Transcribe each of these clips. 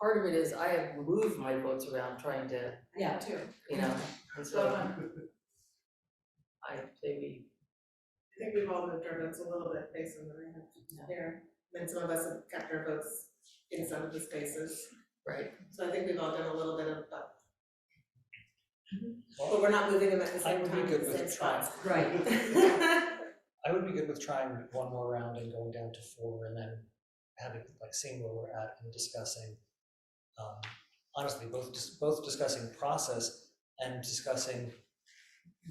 part of it is I have moved my votes around trying to, Yeah. Too. you know, and So so um, I say we, I think we've all moved our votes a little bit based on what I have there. And some of us have kept our votes in some of the spaces. right, So I think we've all done a little bit of both. But we're not moving them at the Mm-hmm. I same would be time, good the same with trying, spots. Right, I would be good with trying one more round and going down to four and then having, like, seeing where we're at and discussing. um, Honestly, both, dis- both discussing process and discussing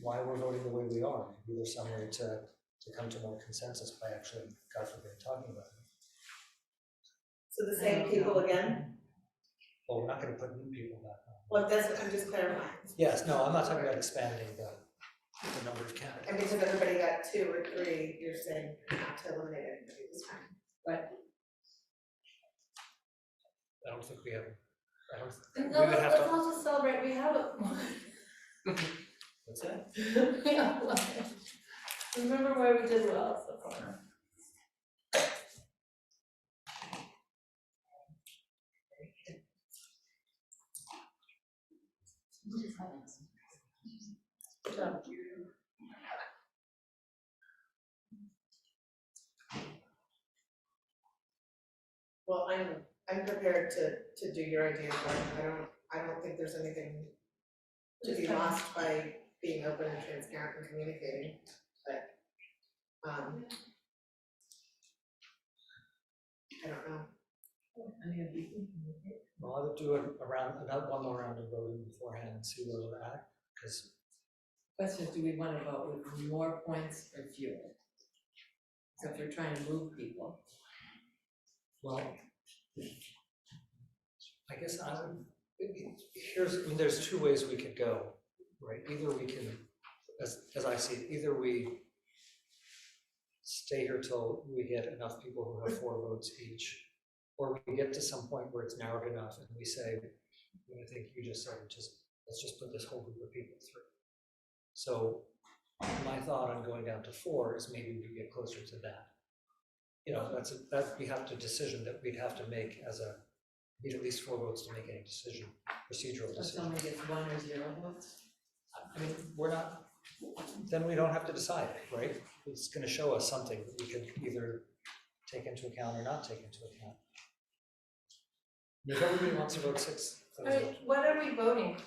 why we're voting the way we are. Maybe there's some way to, to come to more consensus by actually, God forbid, talking about it. So the same people again? Well, we're not gonna put new people back on. Well, that's what I'm just clarifying. Yes, no, I'm not talking about expanding the, the number of candidates. I mean, if everybody got two or three, you're saying not to eliminate anybody this time. I don't think we have, I don't, no, We would let's, have let's to- all just celebrate, we have a. what's that? Yeah, well, Remember where we did well so far. Good job. Well, I'm, I'm prepared to, to do your idea, but I don't, I don't think there's anything to be Just- lost by being open and transparent and communicating, but, um, I don't know. Well, I would do a, a round, another, one more round of voting beforehand, and see where we're at, because question is, do we wanna vote with more points or fewer? So if you're trying to move people, Well, I guess I would, here's, I mean, there's two ways we could go, right? Either we can, as, as I see it, either we stay here till we get enough people who have four votes each, or we get to some point where it's narrowed enough and we say, "You know, I think you just said, just, let's just put this whole group of people through. So my thought on going down to four is maybe we get closer to that you know, that's, a- that, we have to decision that we'd have to make as a, need at least four votes to make any decision, procedural so decision. someone gets one or zero votes, I mean, we're not, then we don't have to decide, right? It's gonna show us something that we can either take into account or not take into account. If everybody wants to vote six, All then vote. right, what are we voting?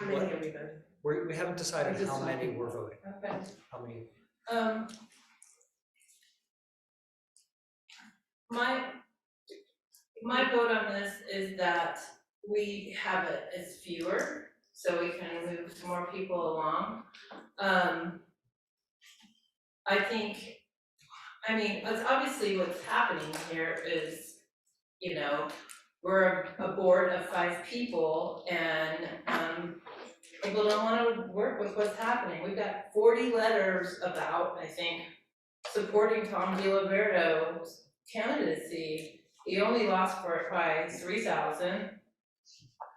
How many have we done? we, we haven't decided how many we're voting, Okay, how many, um. My, my vote on this is that we have it as fewer, so we can move more people along. Um. I think, I mean, it's obviously what's happening here is, you know, we're a board of five people and, um, people don't wanna work with what's happening. We've got forty letters about, I think, supporting Tom DiLiberto's candidacy. He only lost for it by three thousand.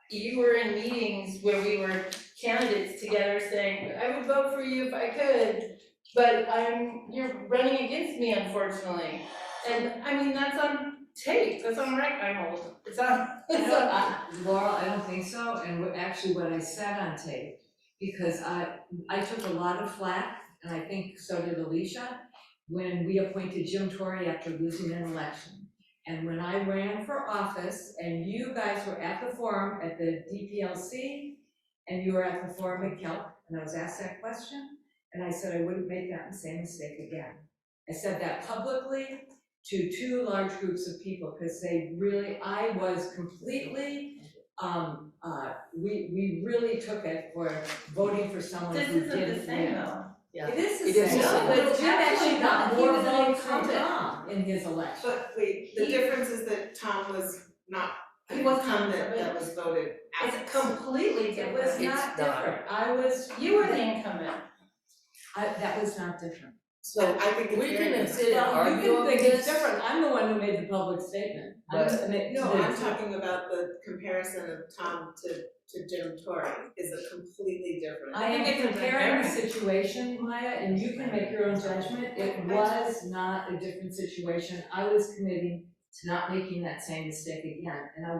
You were in meetings where we were candidates together saying, I would vote for you if I could, but I'm, you're running against me unfortunately. And I mean, that's on tape, that's on rec, I'm old, it's on, I it's don't, on. I, Laurel, I don't think so, and what- actually what I said on tape, because I, I took a lot of flack, and I think so did Alicia, when we appointed Jim Torrey after losing an election. And when I ran for office, and you guys were at the forum at the DPLC, and you were at the forum at Kelp, and I was asked that question, and I said I wouldn't make that same mistake again. I said that publicly, to two large groups of people, because they really, I was completely, um, uh, we, we really took it for voting for someone This who isn't didn't the same win. though. yeah. It is It the is same. the same. No, but it's Jim actually got actually more not. He was an votes than incumbent. Tom in his election. But wait, the He- difference is that Tom was not an He wasn't incumbent incumbent. that was voted out. It's completely It different. was It's not. not different. I was, You were the incumbent. I, that was not different. So I think it's we very can different. sit and argue Well, over you can think it's this, different. I'm the one who made the public statement. I'm But- the- made- No, the- I'm talking about the comparison of Tom to, to Jim Torrey is a completely different. I think am it's a comparing the very- situation, Maya, and you can make your own judgment, it was not a different situation, I was committing to not making that same mistake again, and I